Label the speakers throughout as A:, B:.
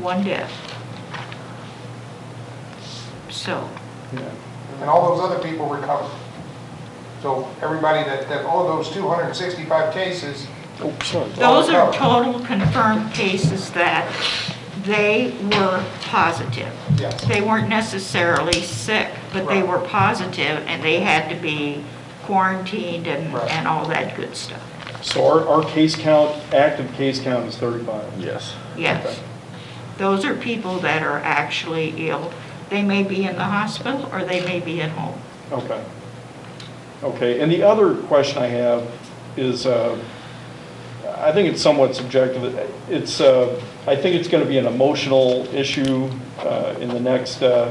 A: one death. So,
B: And all those other people recovered. So everybody that, that, all those 265 cases,
C: Oh, sorry.
A: those are total confirmed cases that they were positive.
B: yes,
A: They weren't necessarily sick, but they
B: Right.
A: were positive and they had to be quarantined and,
B: Right.
A: and all that good stuff.
C: So our, our case count, active case count is 35.
D: Yes.
C: Okay.
A: Yes. Those are people that are actually ill. They may be in the hospital or they may be at home.
C: Okay. Okay, and the other question I have is, uh, I think it's somewhat subjective. It's, uh, I think it's going to be an emotional issue uh, in the next, uh,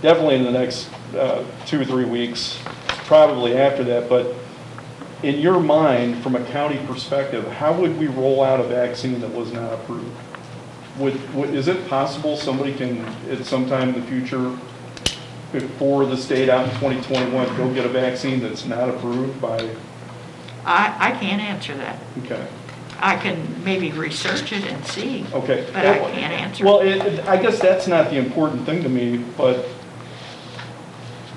C: definitely in the next uh, two or three weeks, probably after that, but in your mind, from a county perspective, how would we roll out a vaccine that was not approved? Would, would- is it possible somebody can, at some time in the future, before this date out in 2021, go get a vaccine that's not approved by,
A: I, I can't answer that.
C: okay,
A: I can maybe research it and see,
C: okay.
A: but I can't answer.
C: Well, it- it- I guess that's not the important thing to me, but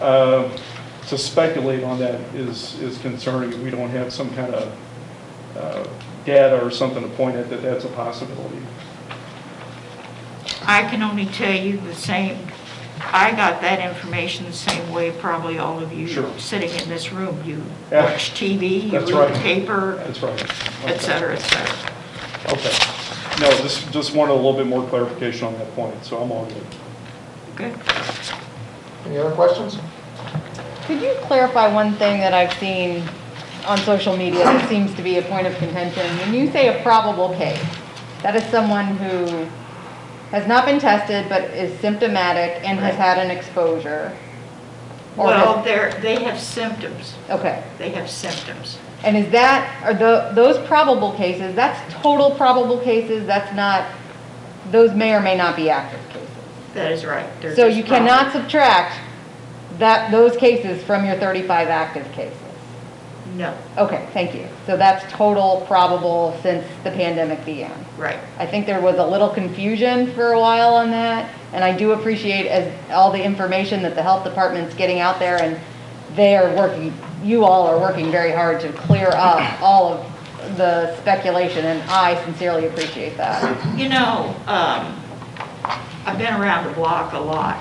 C: uh, to speculate on that is, is concerning if we don't have some kind of uh, data or something to point at that that's a possibility.
A: I can only tell you the same, I got that information the same way probably all of you
C: Sure.
A: sitting in this room. You
C: Yeah.
A: watch TV, you
C: That's
A: read the
C: right.
A: paper,
C: That's right.
A: et cetera, et cetera.
C: Okay. No, just, just wanted a little bit more clarification on that point, so I'm all good.
A: Good.
B: any other questions?
E: Could you clarify one thing that I've seen on social media that seems to be a point of contention? When you say a probable case, that is someone who has not been tested but is symptomatic and has had an exposure. Or has-
A: Well, they're, they have symptoms.
E: Okay,
A: They have symptoms.
E: and is that, are tho- those probable cases, that's total probable cases, that's not, those may or may not be active cases.
A: That is right. They're
E: So
A: just
E: you
A: wrong.
E: cannot subtract that, those cases from your 35 active cases.
A: No,
E: Okay, thank you. So that's total probable since the pandemic began.
A: right.
E: I think there was a little confusion for a while on that, and I do appreciate as all the information that the health department's getting out there, and they are working, you all are working very hard to clear up all of the speculation, and I sincerely appreciate that.
A: You know, um, I've been around the block a lot.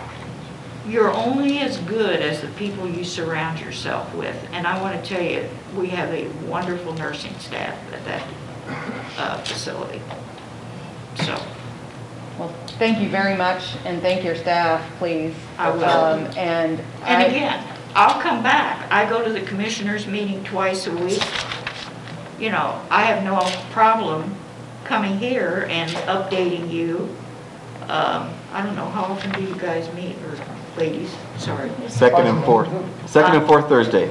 A: You're only as good as the people you surround yourself with. And I want to tell you, we have a wonderful nursing staff at that uh, facility. So,
E: Well, thank you very much, and thank your staff, please.
A: I will.
E: Um, And
A: and
E: I-
A: again, I'll come back. I go to the commissioners' meeting twice a week. You know, I have no problem coming here and updating you. Um, I don't know, how often do you guys meet, or ladies, sorry?
D: Second and fourth, second and fourth Thursday.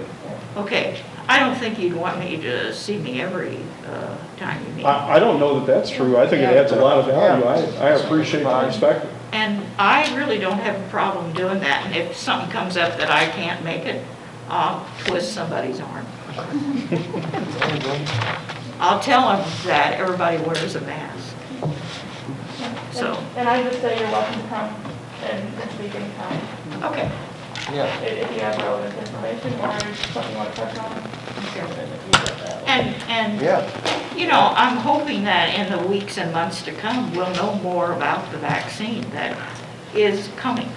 A: Okay, I don't think you'd want me to see me every uh, time you meet.
C: I, I don't know that that's true. I think it adds a lot of value. I, I appreciate the perspective.
A: And I really don't have a problem doing that, and if something comes up that I can't make it, I'll twist somebody's arm. I'll tell them that everybody wears a mask. So,
F: And I just say you're welcome to come and speak anytime,
A: okay.
B: Yeah.
F: if if you have relevant information or something you want to touch on.
A: And, and, you know, I'm hoping that in the weeks and months to come, we'll know more about the vaccine that is coming.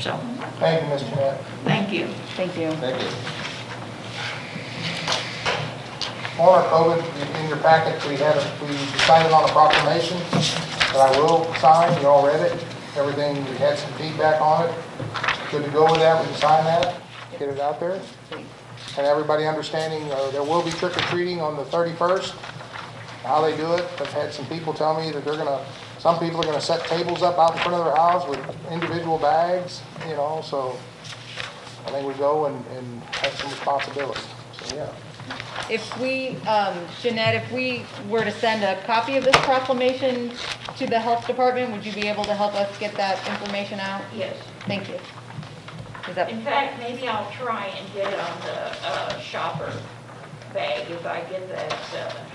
A: So,
B: Thank you, Ms. Jeanette.
A: thank you.
E: Thank you.
B: Thank you. On our COVID, in your packet, we had, a- we decided on a proclamation that I will sign, you all read it, everything, we had some feedback on it. Good to go with that, we can sign that, get it out there. And everybody understanding, uh, there will be trick or treating on the 31st, how they do it. I've had some people tell me that they're gonna, some people are gonna set tables up out in front of their house with individual bags, you know, so I think we go and, and have some responsibility, so, yeah.
E: If we, um, Jeanette, if we were to send a copy of this proclamation to the health department, would you be able to help us get that information out?
A: Yes.
E: Thank you. Is that,
A: In fact, maybe I'll try and get it on the uh, shopper bag if I get that uh,